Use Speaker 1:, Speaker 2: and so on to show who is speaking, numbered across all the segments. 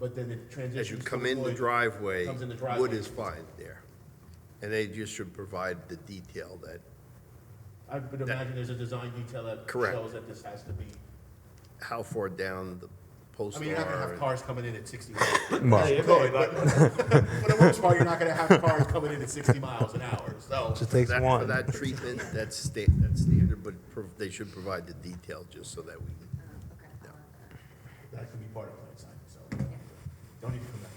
Speaker 1: but then it transitions.
Speaker 2: As you
Speaker 1: to
Speaker 2: come in the
Speaker 1: Lloyd.
Speaker 2: driveway,
Speaker 1: comes in the
Speaker 2: wood
Speaker 1: driveway.
Speaker 2: is fine there. And they just should provide the detail that
Speaker 1: I would imagine there's a design detail that
Speaker 2: Correct.
Speaker 1: shows that this has to be,
Speaker 2: how far down the
Speaker 1: I
Speaker 2: posts are.
Speaker 1: mean, you're not gonna have
Speaker 2: and-
Speaker 1: cars coming in at sixty.
Speaker 3: Well-
Speaker 1: You could, but For the most part, you're not gonna have cars coming in at sixty miles an hour, so.
Speaker 3: Just takes
Speaker 2: That- For
Speaker 3: one.
Speaker 2: that treatment, that's sta, that's standard, but pro- they should provide the detail just so that we,
Speaker 1: That could be part of plan sign, so. Don't even come back,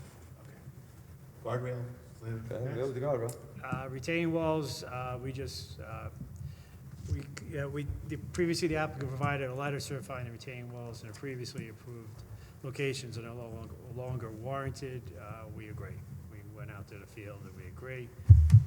Speaker 1: okay. Guardrail,
Speaker 4: Okay, go
Speaker 1: live,
Speaker 4: with the guardrail.
Speaker 5: Uh, Retaining walls, uh, we just, uh, we, yeah, we, the- previously the applicant provided a letter certifying the retaining walls in a previously approved locations and are no longer- longer warranted. Uh, We agree. We went out to the field and we agree.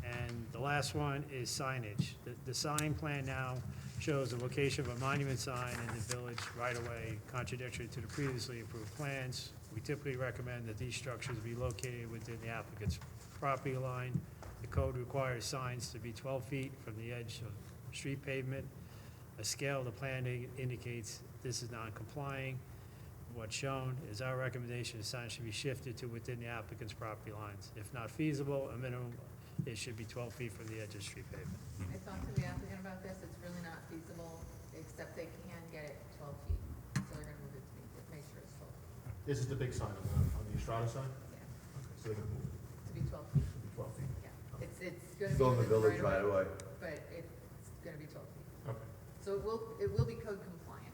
Speaker 5: And the last one is signage. The- The sign plan now shows the location of a monument sign in the village right away, contradictory to the previously approved plans. We typically recommend that these structures be located within the applicant's property line. The code requires signs to be 12 feet from the edge of street pavement. A scale of the plan i- indicates this is not complying. What's shown is our recommendation, the sign should be shifted to within the applicant's property lines. If not feasible, a minimum, it should be 12 feet from the edge of street pavement.
Speaker 6: I talked to the applicant about this, it's really not feasible, except they can get it twelve feet, so they're gonna move it to make, make sure it's twelve,
Speaker 1: this is the big sign on the, on the Estrada sign,
Speaker 6: yeah,
Speaker 1: okay, so they're gonna move it
Speaker 6: to be twelve feet,
Speaker 1: to be twelve feet,
Speaker 6: yeah. It's, it's gonna be.
Speaker 4: Still in the
Speaker 6: within
Speaker 4: village right away.
Speaker 6: But it's gonna be twelve feet,
Speaker 1: okay.
Speaker 6: so it will, it will be code compliant.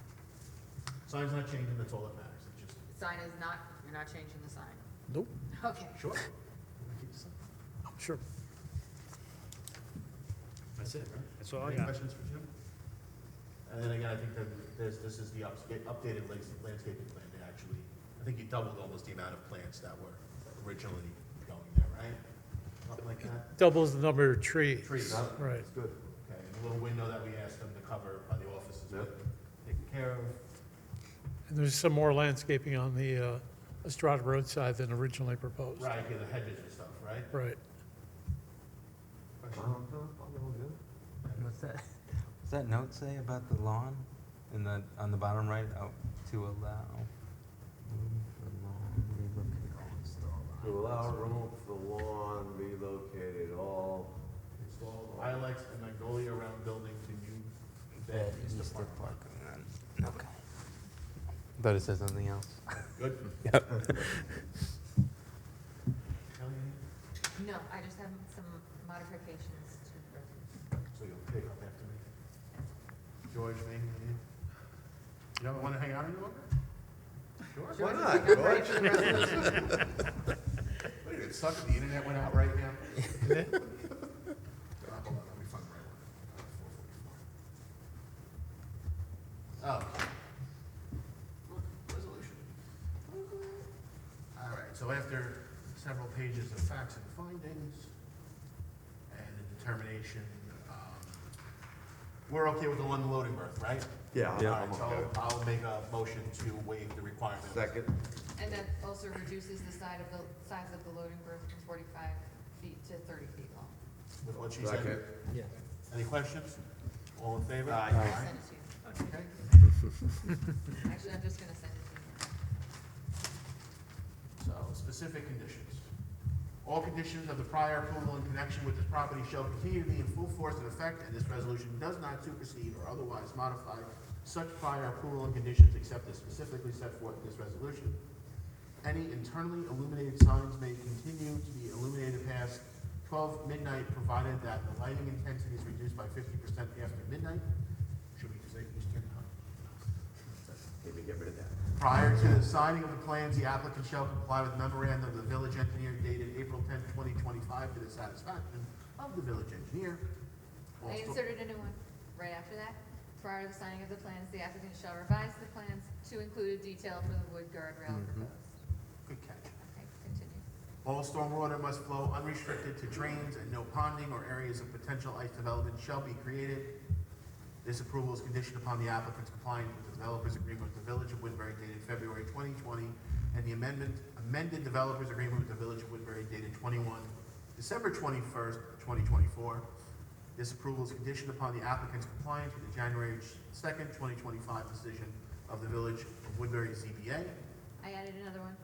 Speaker 1: Sign's not changing, that's all that matters, it's just.
Speaker 6: The Sign is not, you're not changing the sign.
Speaker 5: Nope.
Speaker 6: Okay.
Speaker 1: Sure.
Speaker 5: Sure. That's it,
Speaker 1: right?
Speaker 5: That's all I
Speaker 1: Any
Speaker 5: got.
Speaker 1: questions for Jim? And then again, I think that this, this is the ups- updated lands- landscaping plan, they actually, I think you doubled almost the amount of plants that were originally going there, right? Something like that?
Speaker 7: doubles the number of trees.
Speaker 1: Trees, huh?
Speaker 7: Right.
Speaker 1: That's good. Okay, and the little window that we asked them to cover by the offices, taken care of.
Speaker 7: And there's some more landscaping on the uh, Estrada Road side than originally proposed.
Speaker 1: Right, yeah, the hedges and stuff, right?
Speaker 7: Right.
Speaker 1: Question?
Speaker 4: Um, no, I'm all good. What's that, what's that note say about the lawn in the, on the bottom right, out to allow? room for lawn relocate-
Speaker 8: To allow room for the lawn relocated all,
Speaker 1: Install Ilex and magnolia around building to new bed is the
Speaker 4: East
Speaker 1: park.
Speaker 4: of Park, and then- okay. Thought it said something else.
Speaker 1: Good?
Speaker 3: Yep.
Speaker 1: Kelly,
Speaker 6: No, I just have some modifications to, the-
Speaker 1: So you'll pick up after me. George, me, you. You don't want to hang out any longer? George?
Speaker 6: George,
Speaker 1: not,
Speaker 6: I'm ready for the resolution.
Speaker 1: Wait a minute, suck if the internet went out right now. Uh, hold on, let me find the right one. Uh, 444. Oh. Look, Resolution. All right, so after several pages of facts and findings and the determination, um, we're okay with the one loading berth, right?
Speaker 8: yeah. I'm-
Speaker 1: All
Speaker 8: I'm
Speaker 1: right, so
Speaker 8: okay.
Speaker 1: I'll make a motion to waive the requirement.
Speaker 8: Second,
Speaker 6: And that also reduces the side of the, size of the loading berth from forty-five feet to thirty feet long.
Speaker 1: With what she
Speaker 8: second.
Speaker 1: said. Any questions? All in favor? Aye.
Speaker 6: I'll send it to you.
Speaker 1: Okay.
Speaker 6: Actually, I'm just gonna send it to you.
Speaker 1: So, specific conditions. All conditions of the prior approval in connection with this property shall continue to be in full force and effect, and this resolution does not supersede or otherwise modify such prior approval and conditions except as specifically set forth in this resolution. Any internally illuminated signs may continue to be illuminated past twelve midnight, provided that the lighting intensity is reduced by fifty percent after midnight. Should we just say Eastern time? Maybe get rid of that. Prior to the signing of the plans, the applicant shall comply with memorandum of the village engineer dated April tenth, twenty twenty-five, to the satisfaction of the village engineer.
Speaker 6: I inserted a new one right after that. Prior to the signing of the plans, the applicant shall revise the plans to include a detail for the wood guardrail proposed.
Speaker 1: Good catch.
Speaker 6: Okay, continue.
Speaker 1: All stormwater must flow unrestricted to drains, and no ponding or areas of potential ice development shall be created. This approval is conditioned upon the applicant's compliance with the developer's agreement with the Village of Woodbury dated February 2020, and the amendment, amended developer's agreement with the Village of Woodbury dated 21, December 21st, 2024. This approval is conditioned upon the applicant's compliance with the January 2nd, 2025 decision of the Village of Woodbury ZBA.
Speaker 6: I added another one.